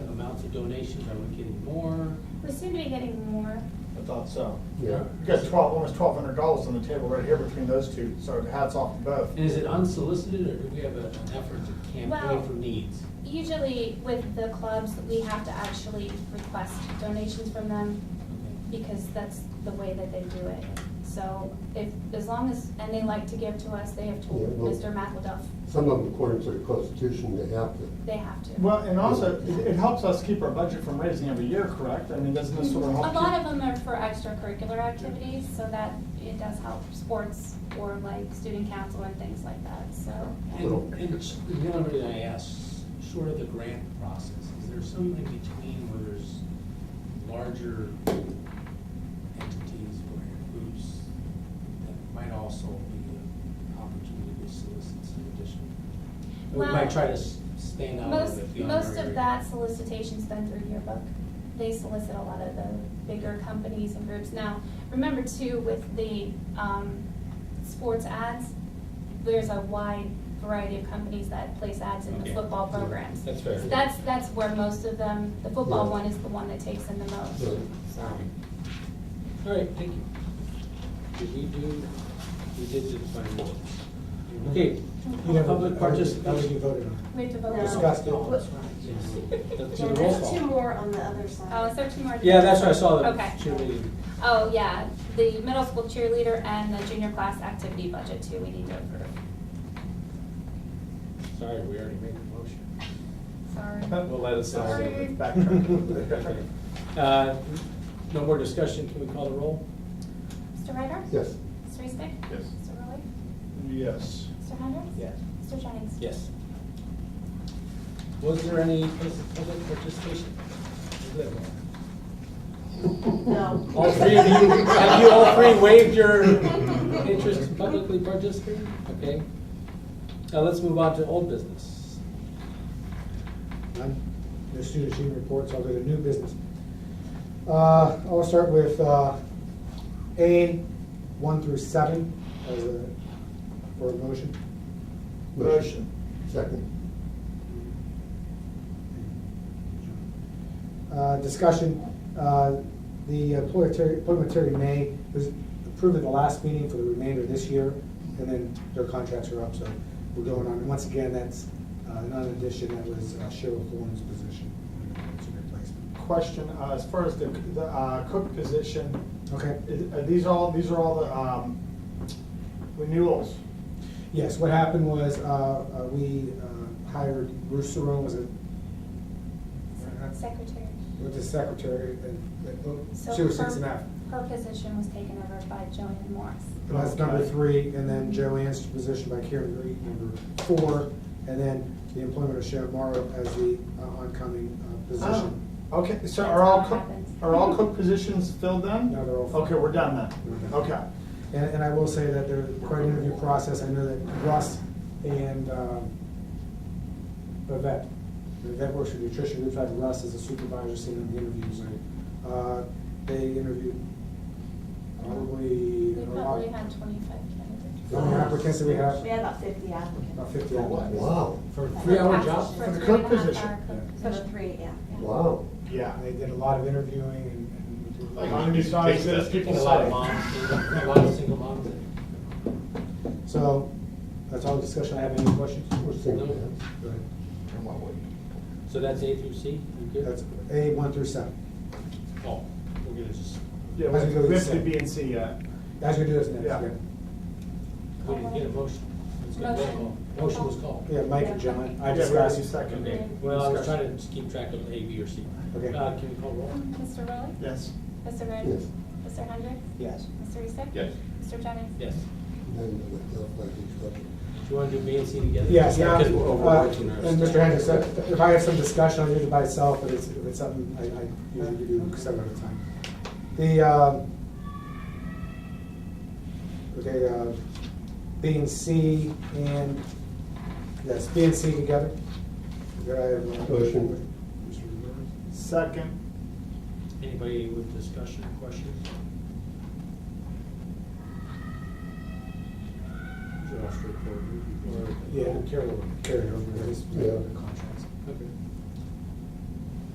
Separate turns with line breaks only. donations, are we getting more?
We seem to be getting more.
I thought so.
Yeah.
You got twelve, almost twelve hundred dollars on the table right here between those two, so hats off to both.
And is it unsolicited, or do we have a- an effort to
Well-
campaign for needs?
Usually with the clubs, we have to actually request donations from them because that's the way that they do it. So if, as long as, and they like to give to us, they have
Yeah,
told
well-
Mr. McElduff,
Some of them, according to the Constitution, they have to.
they have to.
Well, and also, it it helps us keep our budget from raising every year, correct? I mean, doesn't this
A
sort of help?
lot
keep-
of them are for extracurricular activities, so that it does help sports or like student council and things like that, so.
And, and s- the only reason I ask, sort of the grant process, is there something between where there's larger entities or groups that might also be an opportunity to solicit some additional? We
Well,
might try to s- stand out a little
Most,
bit beyond.
most
our
of
area.
that solicitation's done through yearbook. They solicit a lot of the bigger companies and groups. Now, remember too, with the, um, sports ads, there's a wide variety of companies that place ads in the
Okay.
football programs.
That's fair.
So That's, that's where most of them, the football
Yeah.
one is the one that takes in the most,
Yeah.
so.
All right, thank you. Did we do, we did do the final. Okay, public
That would be
participation.
voted on.
We have to vote.
No.
Discussed it.
What-
Let's do
Yeah,
the roll
there's
call.
two more on the other side.
Oh, is there two more?
Yeah, that's what I saw, the
Okay.
cheerleading.
Oh, yeah, the middle school cheerleader and the junior class activity budget too, we need to approve.
Sorry, we already made the motion.
Sorry.
We'll let us know.
Sorry.
Backtrack.
Uh, No more discussion, can we call the roll?
Mr. Ryder?
Yes.
Mr. Eastick?
Yes.
Mr. Rowley?
Yes.
Mr. Hendricks?
Yes.
Mr. Jennings?
Yes. Was there any public participation?
No.
All three of you, have you all three waived your interest in publicly participating? Okay. Now let's move on to old business.
None. No student achievement reports, I'll go to new business. Uh, I'll start with, uh, A, one through seven, as a, for a motion.
Motion.
Second.
Uh, discussion, uh, the appointment Terry- appointment Terry May was approved at the last meeting for the remainder of this year, and then their contracts are up, so we're going on. And once again, that's, uh, another addition, that was uh, Cheryl Thorne's position, it's a replacement.
Question, uh, as far as the, the uh, cook position,
Okay?
is- are these all, these are all the, um, renewals?
Yes, what happened was, uh, uh, we uh, hired Bruce Saron, was it?
Secretary.
With the secretary, and,
So
and she was
her-
six and a half.
Her position was taken over by Joanne Morris.
And That's number three, and then Joanne's position by Karen Reed, number four, and then the employment of Sharon Morrow as the uh, oncoming uh,
Oh,
position.
Okay, so
That's
are all
how it
cook,
happens.
are all cook positions filled then?
No, they're all filled.
Okay, we're done
We're
then.
done.
Okay.
And, and I will say that there's quite an interview process, I know that Russ and, um, Yvette, Yvette works for nutrition, we've had Russ as a supervisor seen in the interviews,
Mm-hmm.
and, uh, they interviewed probably.
We probably had twenty-five candidates.
The only applicants that we have,
We had about fifty applicants.
about fifty.
Wow,
For
Three-hour
For
job?
three
For
and a
cook
half
position.
hour cook
So the
position.
three, yeah.
wow.
Yeah.
And They did a lot of interviewing and. and-
Like, on these sides, there's people
A lot of
say.
moms, a lot of single moms.
So, that's all the discussion I have, any questions?
We're thinking
Go ahead.
So that's A through C, you
That's
good?
A one through seven.
Oh, we're gonna just,
Yeah,
As we go to
we have
C.
to B and C yet.
That's what we do this next,
Yeah.
yeah.
we didn't get a motion. Let's get a roll call. Motion was called.
Yeah, Mike and John, I
Yeah, we
discussed.
already seconded.
Okay, well, I was trying to just keep track of A, B, or C.
Okay.
Uh, Can we call roll?
Mr. Rowley?
Yes.
Mr. Ryder?
Yes.
Mr. Hendricks?
Yes.
Mr. Eastick?
Yes.
Mr. Jennings?
Yes.
Then the left leg is up.
Do you wanna do B and C together?
Yes, yeah,
Because we're
uh,
overworking our
and Mr.
staff.
Hendricks, uh, if I have some discussion, I'll do it by itself, but it's, if it's something, I, I usually do seven at a time. The, um, okay, uh, B and C and, yes, B and C together. Do I have a
Motion.
Second.
Anybody with discussion or questions? Josh, record, or-
Yeah, carry over, carry over, it's,
Yeah.
the contracts.
Okay.